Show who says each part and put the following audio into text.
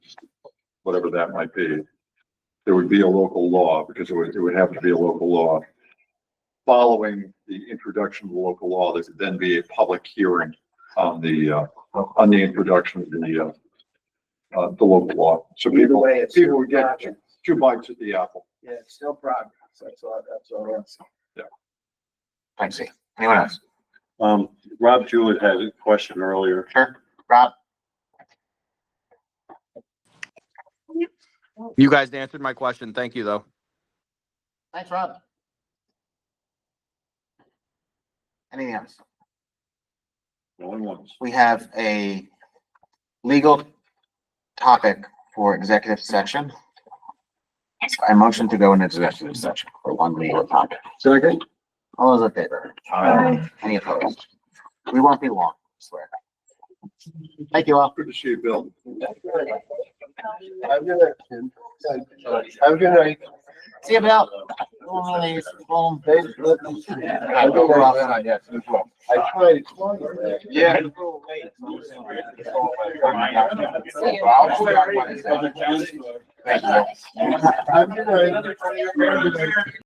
Speaker 1: whatever that might be, there would be a local law, because it would, it would have to be a local law. Following the introduction of the local law, there could then be a public hearing on the, uh, on the introduction of the, uh, uh, the local law. So
Speaker 2: Either
Speaker 1: people,
Speaker 2: way, it's
Speaker 1: people
Speaker 2: still
Speaker 1: would get
Speaker 2: progress.
Speaker 1: two bites at the apple.
Speaker 2: Yeah, it's still progress. That's all, that's all I'm saying.
Speaker 3: Thanks. Steve. Anyone else?
Speaker 4: Um, Rob Jewett had a question earlier.
Speaker 3: Sure. Rob?
Speaker 5: You guys answered my question. Thank you, though.
Speaker 3: Thanks, Rob. Anything else?
Speaker 4: Going once.
Speaker 3: We have a legal topic for executive session. I motion to go into executive session for one legal topic.
Speaker 4: Second?
Speaker 3: All those in favor?
Speaker 4: Aye.
Speaker 3: Any opposed? We won't be long, I swear. Thank you all.
Speaker 1: Good to see you, Bill.
Speaker 2: Have a good night, Tim. Have a good night.
Speaker 3: See you about. Home.
Speaker 2: Hey, look, I don't know about that, yes, as well. I tried.
Speaker 3: Yeah.
Speaker 2: Have a good night.